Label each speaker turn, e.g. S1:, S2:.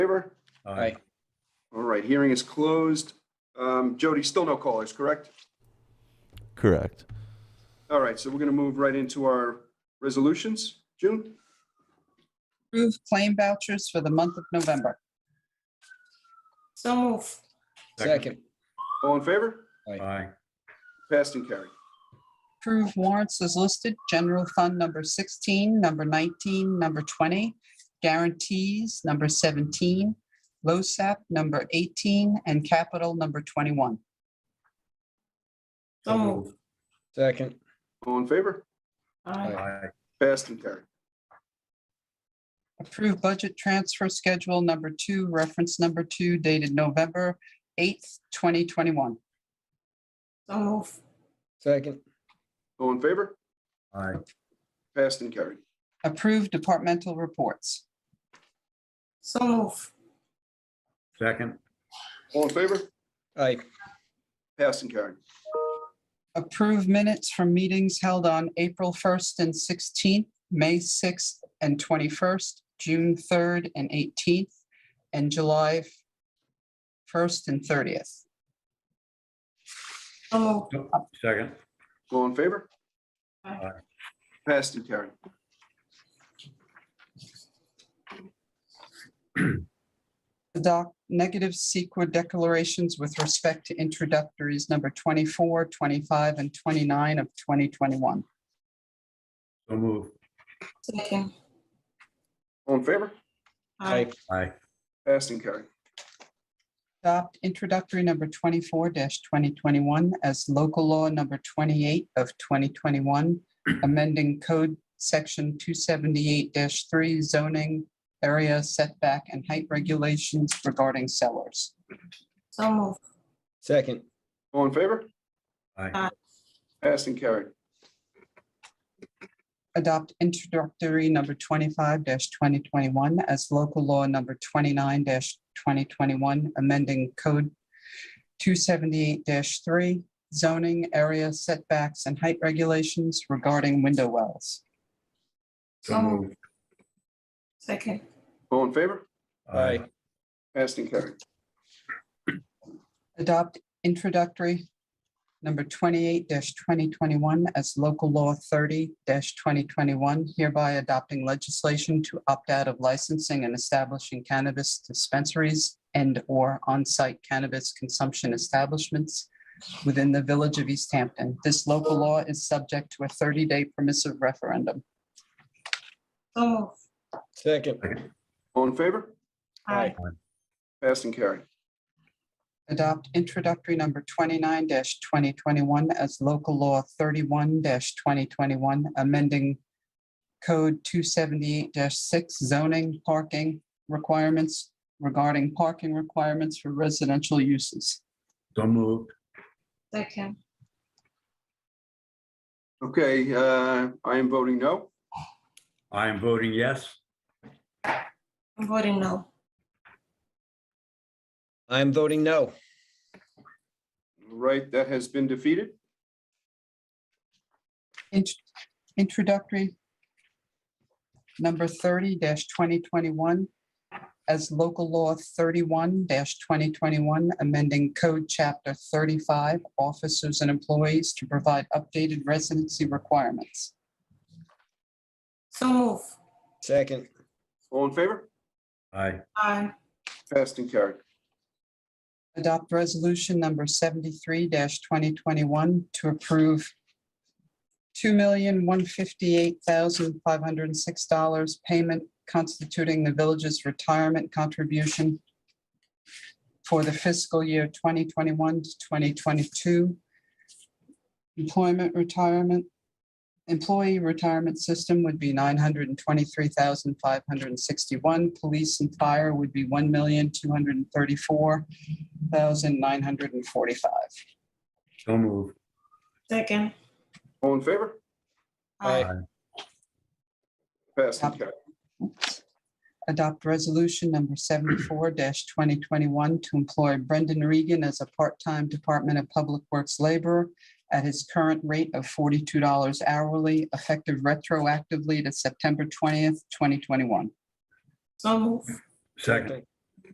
S1: Aye.
S2: All right, hearing is closed. Um, Jody, still no callers, correct?
S3: Correct.
S2: All right, so we're going to move right into our resolutions. June,
S4: Approve claim vouchers for the month of November.
S5: So move.
S1: Second.
S4: Second.
S2: all in favor?
S1: Aye.
S2: Passed and carried.
S4: Approve warrants as listed, general fund number 16, number 19, number 20, guarantees number 17, LoSAP number 18, and capital number 21.
S5: So moved.
S1: Second.
S2: All in favor?
S5: Aye.
S1: Aye.
S2: Passed and carried.
S4: Approve budget transfer schedule number 2, reference number 2 dated November 8th, 2021.
S5: So move.
S1: Second.
S2: All in favor?
S1: Aye.
S2: Passed and carried.
S4: Approve departmental reports.
S5: So move.
S1: Second.
S2: All in favor?
S1: Aye.
S2: Passed and carried.
S4: Approve minutes from meetings held on April 1st and 16th, May 6th and 21st, June 3rd and 18th, and July 1st and 30th.
S5: So moved.
S6: Second,
S2: All in favor?
S5: Aye.
S2: Passed and carried.
S4: Adopt negative CEQA declarations with respect to introductories number 24, 25, and 29 of 2021.
S6: so move.
S5: Second.
S2: All in favor?
S5: Aye.
S6: Aye,
S2: Passed and carried.
S4: Adopt introductory number 24-2021 as local law number 28 of 2021, amending code section 278-3 zoning area setback and height regulations regarding cellars.
S5: So move.
S1: Second.
S2: All in favor?
S6: aye,
S2: Passed and carried.
S4: Adopt introductory number 25-2021 as local law number 29-2021, amending code 278-3 zoning area setbacks and height regulations regarding window wells.
S6: so move.
S5: Second.
S2: All in favor?
S6: Aye,
S2: Passed and carried.
S4: adopt introductory number twenty-eight twenty twenty-one as local law thirty twenty twenty-one, hereby adopting legislation to opt out of licensing and establishing cannabis dispensaries and/or on-site cannabis consumption establishments within the village of East Hampton. This local law is subject to a thirty-day permissive referendum.
S5: So move.
S1: Second.
S2: All in favor?
S5: Aye.
S2: Passed and carried.
S4: Adopt introductory number twenty-nine twenty twenty-one as local law thirty-one twenty twenty-one, amending code two seventy-eight six zoning parking requirements regarding parking requirements for residential uses.
S6: so move.
S5: Second.
S2: Okay, uh, I am voting no.
S6: I am voting yes.
S5: I'm voting no.
S1: I'm voting no.
S2: All Right, that has been defeated.
S4: Int- Introductory number thirty twenty twenty-one as local law thirty-one twenty twenty-one, amending code chapter thirty-five, officers and employees to provide updated residency requirements.
S5: So move.
S1: Second.
S2: All in favor?
S6: Aye,
S5: Aye.
S2: Passed and carried.
S4: Adopt resolution number seventy-three twenty twenty-one to approve two million, one fifty-eight thousand, five hundred and six dollars payment constituting the village's retirement contribution for the fiscal year twenty twenty-one to twenty twenty-two employment retirement, employee retirement system would be nine hundred and twenty-three thousand, five hundred and sixty-one. Police and fire would be one million, two hundred and thirty-four thousand nine hundred and forty-five.
S6: so move.
S5: Second.
S2: All in favor? Passed and carried.
S4: Adopt resolution number seventy-four twenty twenty-one to employ Brendan Regan as a part-time Department of Public Works laborer at his current rate of forty-two dollars hourly, effective retroactively to September twentieth, twenty twenty-one.
S5: So move.
S6: Second,